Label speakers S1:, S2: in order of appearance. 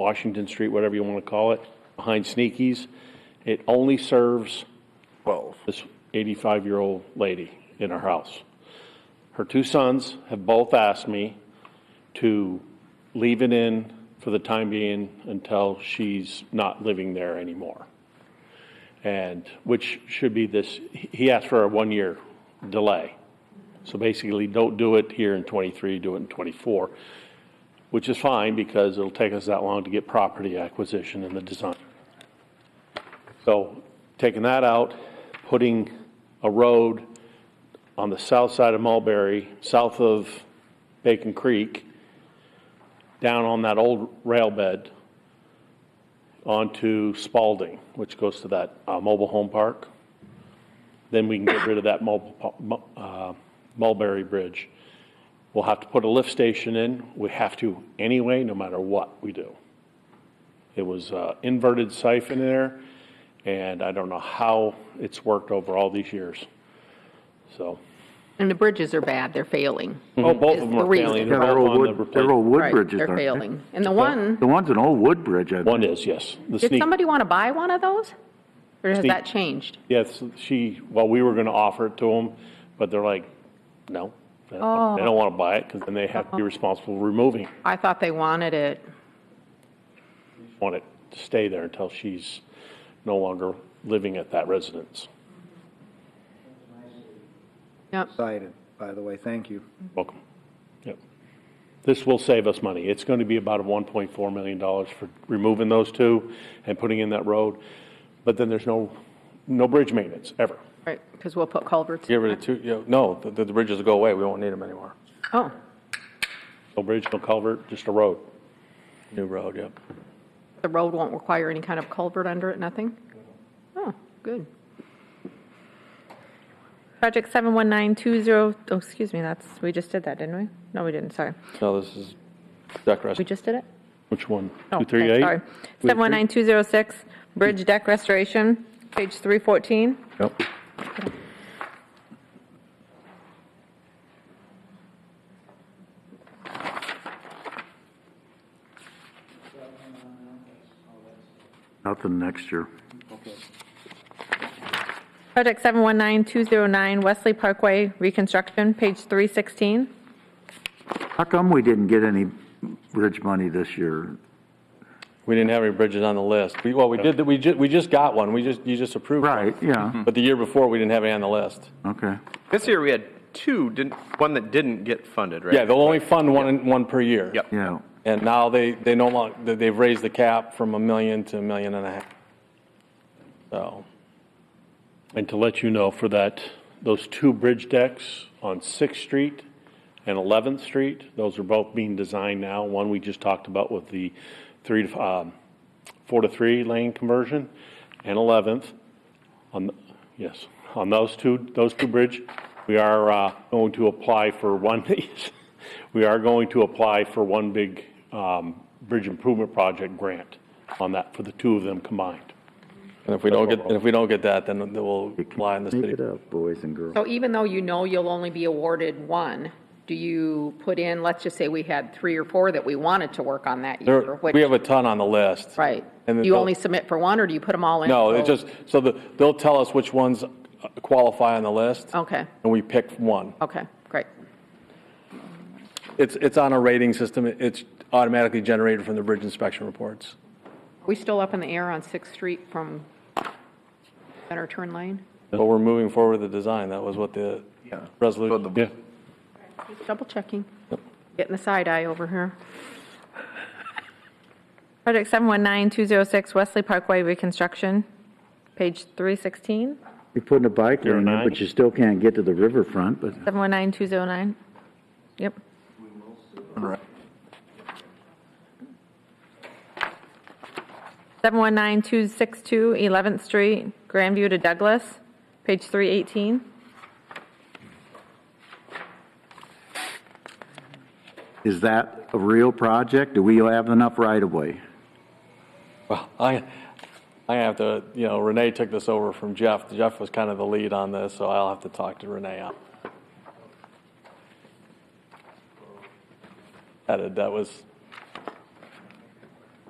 S1: Washington Street, whatever you want to call it, behind Sneaky's. It only serves
S2: Twelve.
S1: this 85-year-old lady in her house. Her two sons have both asked me to leave it in for the time being until she's not living there anymore. And, which should be this, he he asked for a one-year delay. So basically, don't do it here in '23, do it in '24, which is fine because it'll take us that long to get property acquisition and the design. So taking that out, putting a road on the south side of Mulberry, south of Bacon Creek, down on that old rail bed onto Spalding, which goes to that uh, mobile home park. Then we can get rid of that mobile, mu- uh, Mulberry Bridge. We'll have to put a lift station in. We have to anyway, no matter what we do. It was uh, inverted siphon there, and I don't know how it's worked over all these years. So,
S3: And the bridges are bad, they're failing.
S1: oh, both
S3: Mm-hmm. Is
S1: of them
S3: the
S1: are
S3: reason.
S1: failing.
S2: Yeah,
S1: They're
S2: they're
S1: both
S2: old
S1: on the
S2: wood, they're
S1: replacement.
S2: old wood
S3: Right,
S2: bridges,
S3: They're
S2: aren't they?
S3: failing. And the one,
S2: The one's an old wood bridge, I
S1: One is, yes. The
S3: did
S1: sneak,
S3: somebody want to buy one of those? Or has
S1: Sneak.
S3: that changed?
S1: yes, she, well, we were going to offer it to them, but they're like, no. They don't- they
S3: Oh.
S1: don't want to buy it because then they
S3: Uh-huh.
S1: have to be responsible for removing it.
S3: I thought they wanted it.
S1: want it to stay there until she's no longer living at that residence.
S3: Yep.
S4: Excited, by the way, thank you.
S1: Welcome. Yep. This will save us money. It's going to be about $1.4 million for removing those two and putting in that road. But then there's no, no bridge maintenance, ever.
S3: Right, because we'll put culverts.
S5: Get rid of two, you know, no, the, the bridges will go away, we won't need them anymore.
S3: Oh,
S1: No bridge, no culvert, just a road.
S5: New road, yep.
S3: the road won't require any kind of culvert under it, nothing? Oh, good.
S6: Project 719202, oh, excuse me, that's, we just did that, didn't we? No, we didn't, sorry.
S5: No, this is deck rest.
S6: We just did it?
S1: Which one?
S6: No, Oh, okay,
S1: 238?
S6: Sorry. 719206, bridge deck restoration, page 314.
S1: Yep.
S2: Nothing next year.
S6: Project 719209, Wesley Parkway reconstruction, page 316.
S2: How come we didn't get any bridge money this year?
S5: We didn't have any bridges on the list. We, well, we did, we ju, we just got one, we just, you just approved. one.
S2: Right, yeah, Hmm.
S5: But the year before, we didn't have any on the list.
S2: Mm-hmm. okay.
S7: This year we had two, didn't, one that didn't get funded, right?
S5: Yeah, they'll only fund one, one per year.
S7: Yep.
S2: Yeah,
S5: And now they, they no longer, they've raised the cap from a million to a million and a half. So,
S1: And to let you know, for that, those two bridge decks on Sixth Street and Eleventh Street, those are both being designed now. One we just talked about with the three to, um, four to three lane conversion, and Eleventh. On, yes, on those two, those two bridge, we are, uh, going to apply for one, we are going to apply for one big, um, bridge improvement project grant on that, for the two of them combined.
S5: and if we don't get, and if we don't get that, then we'll lie in the
S2: make
S5: city.
S2: it up, boys and girls.
S3: So even though you know you'll only be awarded one, do you put in, let's just say we had three or four that we wanted to work on that year?
S5: There,
S3: which-
S5: we have a ton on the list.
S3: Right. Do
S5: And then
S3: you
S5: they'll-
S3: only submit for one, or do you put them all in?
S5: No, it's
S3: So-
S5: just, so the, they'll tell us which ones uh, qualify on the list.
S3: Okay,
S5: And we pick one.
S3: okay, great.
S5: It's, it's on a rating system. It's automatically generated from the bridge inspection reports.
S3: We still up in the air on Sixth Street from Center Turn Lane?
S5: But we're moving forward with the design. That was what the resolution.
S1: Yeah.
S3: Just double checking. Getting the side eye over here.
S6: Project 719206, Wesley Parkway reconstruction, page 316.
S2: You're putting a bike
S1: Zero
S2: lane in,
S1: nine.
S2: but you still can't get to the riverfront, but
S6: 719209. Yep. Seven one nine two six two Eleventh Street, Grandview to Douglas, page three eighteen.
S2: is that a real project? Do we have enough right of way?
S5: Well, I, I have to, you know, Renee took this over from Jeff. Jeff was kind of the lead on this, so I'll have to talk to Renee. on- That, that was